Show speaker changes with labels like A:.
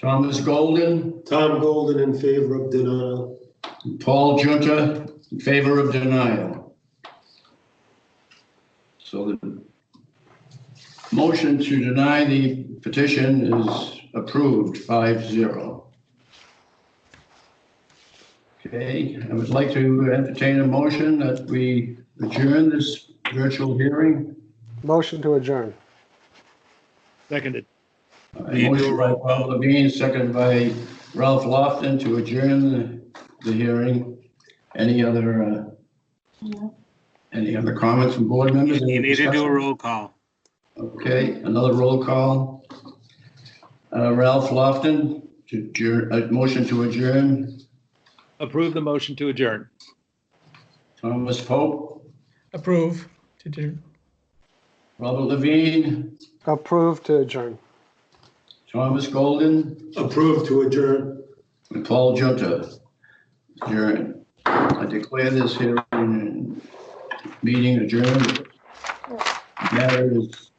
A: Thomas Golden,
B: Tom Golden in favor of denial.
A: Paul Junta in favor of denial. So the motion to deny the petition is approved, five zero. Okay, I would like to entertain a motion that we adjourn this virtual hearing.
C: Motion to adjourn.
D: Seconded.
A: A Motion by Paul Levine, seconded by Ralph Lofton to adjourn the- the hearing. Any other, uh, any other comments from board members?
E: You need to do a roll call.
A: Okay, another roll call. Uh, Ralph Lofton, to adjourn, a motion to adjourn.
D: Approve the motion to adjourn.
A: Thomas Pope,
F: approve to do.
A: Robert Levine,
C: Approved to adjourn.
A: Thomas Golden,
B: Approved to adjourn.
A: and Paul Junta. Adjourn. I declare this hearing, meeting adjourned. Matter is